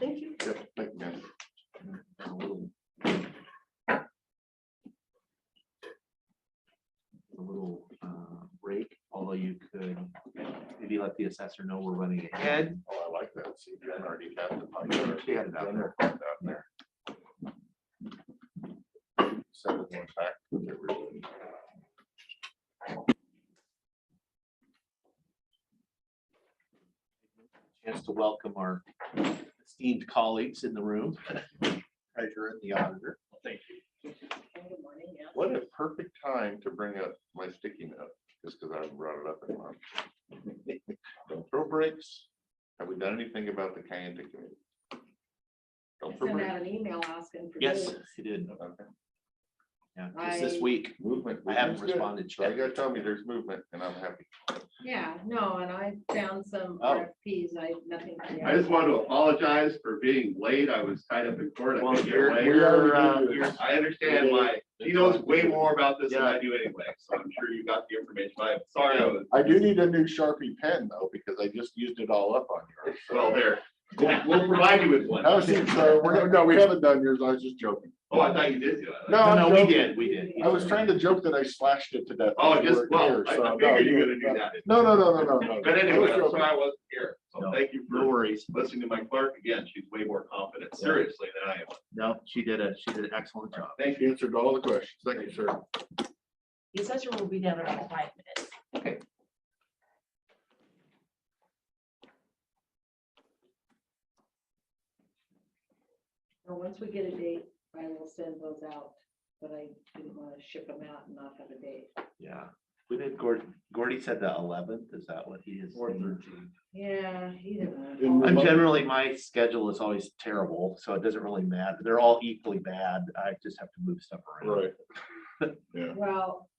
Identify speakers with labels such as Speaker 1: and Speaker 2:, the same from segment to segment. Speaker 1: Thank you.
Speaker 2: Yep, thank you, ma'am.
Speaker 3: a little uh, break, although you could maybe let the assessor know we're running ahead.
Speaker 2: Oh, I like that. See, you already have the pie chart.
Speaker 3: She had it out there.
Speaker 2: Down there. Send it one back to everyone.
Speaker 3: Chance to welcome our esteemed colleagues in the room, treasurer and the auditor.
Speaker 1: Good morning, yeah.
Speaker 2: What a perfect time to bring up my sticky note, just because I brought it up in lunch. Don't throw breaks. Have we done anything about the Kayanta committee?
Speaker 1: I
Speaker 2: Don't throw
Speaker 1: sent
Speaker 2: breaks.
Speaker 1: out an email asking for.
Speaker 3: Yes,
Speaker 1: bids.
Speaker 3: he did.
Speaker 2: Okay.
Speaker 3: Yeah, just this
Speaker 1: I-
Speaker 3: week.
Speaker 2: Movement.
Speaker 3: I haven't
Speaker 2: Movement.
Speaker 3: responded
Speaker 2: So you
Speaker 3: yet.
Speaker 2: gotta tell me there's movement and I'm happy.
Speaker 1: Yeah, no, and I found some
Speaker 3: Oh.
Speaker 1: RFPs, I, nothing.
Speaker 4: I just wanted to apologize for being late. I was tied up in court. I
Speaker 3: Well,
Speaker 4: couldn't get
Speaker 3: you're-
Speaker 4: away.
Speaker 3: you're, uh, you're-
Speaker 4: I understand why. He knows way more about this than I do anyway, so I'm sure you got the information. I'm sorry, I was,
Speaker 2: I do need a new Sharpie pen though, because I just used it all up on yours. so-
Speaker 4: well, there. We'll, we'll provide you with one.
Speaker 2: No, Oh, see, so we're gonna, no, we haven't done yours. I was just joking.
Speaker 4: Oh, I thought you did do it.
Speaker 2: No, I'm
Speaker 3: No, we
Speaker 2: joking.
Speaker 3: did, we did.
Speaker 2: I was trying to joke that I slashed it to death.
Speaker 4: Oh,
Speaker 2: when you
Speaker 4: just,
Speaker 2: weren't
Speaker 4: well,
Speaker 2: here,
Speaker 4: I
Speaker 2: so
Speaker 4: I
Speaker 2: no,
Speaker 4: figured you were
Speaker 2: no,
Speaker 4: gonna do that.
Speaker 2: No, no, no, no, no, no.
Speaker 4: But anyway,
Speaker 2: I was
Speaker 4: I'm
Speaker 2: joking.
Speaker 4: sorry I wasn't here. So
Speaker 3: No.
Speaker 4: thank you
Speaker 3: No
Speaker 4: for
Speaker 3: worries.
Speaker 4: listening to my clerk again. She's way more confident, seriously, than I am.
Speaker 3: No, she did a, she did an excellent job.
Speaker 2: Thank you. Answered all the questions. Thank you, sir.
Speaker 5: The assessor will be down in about five minutes.
Speaker 1: Well, once we get a date, I will send those out, but I didn't want to ship them out and not have a date.
Speaker 3: Yeah. We did, Gordy, Gordy said the eleventh, is that what he is?
Speaker 1: Yeah, he didn't.
Speaker 2: In
Speaker 1: wanna-
Speaker 3: I'm generally, my schedule is always terrible, so it doesn't really matter. They're all equally bad. I just have to move stuff around.
Speaker 2: Right.
Speaker 1: Well,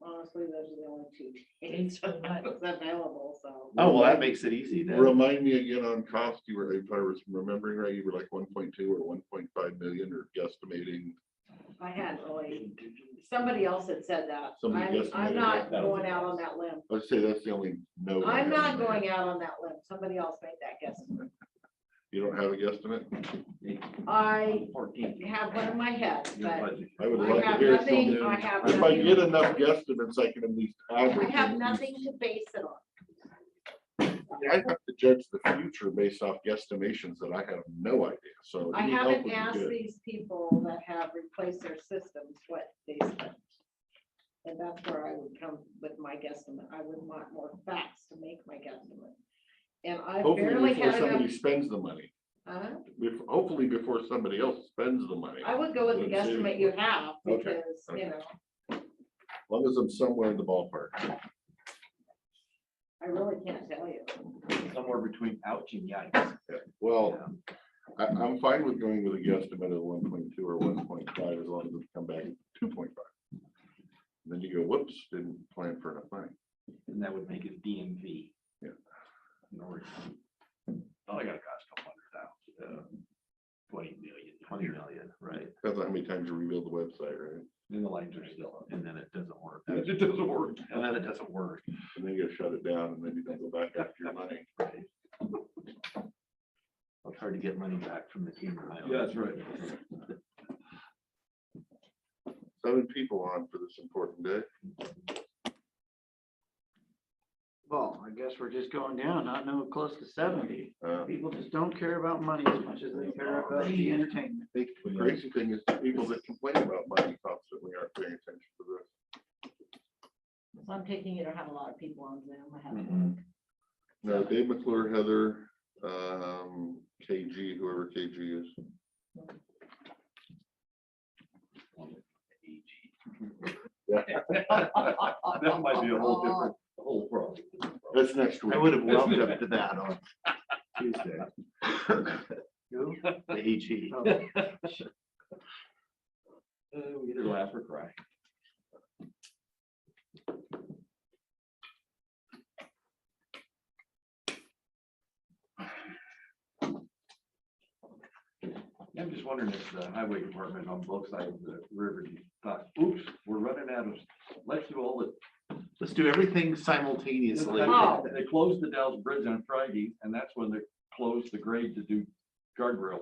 Speaker 1: honestly, those are the only two dates
Speaker 5: It's for the month.
Speaker 1: that's available, so.
Speaker 3: Oh, well, that makes it easy then.
Speaker 2: Remind me again on cost, you were, if I was remembering right, you were like one point two or one point five million or guesstimating.
Speaker 1: I had really, somebody else had said that.
Speaker 2: Somebody
Speaker 1: I'm,
Speaker 2: guessed
Speaker 1: I'm
Speaker 2: maybe
Speaker 1: not
Speaker 3: that was
Speaker 1: going
Speaker 3: a
Speaker 1: out on
Speaker 3: guess.
Speaker 1: that limb.
Speaker 2: Let's say that's the only no. I
Speaker 1: I'm not
Speaker 2: have.
Speaker 1: going out on that limb. Somebody else made that guess.
Speaker 2: You don't have a guesstimate?
Speaker 1: I
Speaker 3: Fourteenth.
Speaker 1: have one in my head, but
Speaker 2: I would
Speaker 1: I
Speaker 2: love to
Speaker 1: have
Speaker 2: hear
Speaker 1: nothing, I
Speaker 2: something.
Speaker 1: have
Speaker 2: If I get
Speaker 1: nothing,
Speaker 2: enough guesstimates, I can at least.
Speaker 1: I
Speaker 2: average
Speaker 1: have
Speaker 2: it.
Speaker 1: nothing to base it on.
Speaker 2: I have to judge the future based off guesstimations that I have no idea, so.
Speaker 1: I
Speaker 2: any help would
Speaker 1: haven't
Speaker 2: be
Speaker 1: asked
Speaker 2: good.
Speaker 1: these people that have replaced their systems what they spent. And that's where I would come with my guesstimate. I would want more facts to make my guesstimate. And I
Speaker 2: Hopefully
Speaker 1: barely
Speaker 2: before
Speaker 1: had enough.
Speaker 2: somebody spends the money,
Speaker 1: Huh?
Speaker 2: if, hopefully before somebody else spends the money,
Speaker 1: I
Speaker 2: as
Speaker 1: would go with the
Speaker 2: Let's see.
Speaker 1: guesstimate you have
Speaker 2: Okay,
Speaker 1: because, you know,
Speaker 2: long as I'm somewhere in the ballpark.
Speaker 1: I really can't tell you.
Speaker 3: Somewhere between ouch and yikes.
Speaker 2: Well, I, I'm fine with going with a guesstimate of one point two or one point five, as long as we come back two point five. Then you go, whoops, didn't plan for enough money.
Speaker 3: And that would make it DMV.
Speaker 2: Yeah.
Speaker 3: No worries. Oh, I gotta cost a couple hundred thousand. uh, Twenty million. Twenty million, right.
Speaker 2: That's how many times you rebuild the website, right?
Speaker 3: Then the lights are still on, and then it doesn't work.
Speaker 2: It just doesn't work,
Speaker 3: And then it doesn't work.
Speaker 2: and then you gotta shut it down, and then you don't go back after your money.
Speaker 3: It's hard to get money back from the team.
Speaker 2: Seven people on for this important day.
Speaker 6: Well, I guess we're just going down, I know close to seventy.
Speaker 2: Uh,
Speaker 6: People just don't care about money as much as they care about the entertainment.
Speaker 2: The crazy thing is the people that complain about money constantly aren't paying attention to this.
Speaker 5: So I'm taking it or have a lot of people on Zoom. I have
Speaker 2: Mm-hmm. No, Dave McClure, Heather, um, KG, whoever KG is.
Speaker 3: That might be a whole different, whole world.
Speaker 2: That's next week.
Speaker 3: I would have welcomed up to that on Tuesday. The HE.
Speaker 6: Oh,
Speaker 3: We either laugh or cry. I'm just wondering if the highway department on both sides of the river thought, oops, we're running out of, let's do all the. Let's do everything simultaneously.
Speaker 1: Oh.
Speaker 7: They closed the Dalles Bridge on Friday, and that's when they closed the grade to do
Speaker 4: guardrail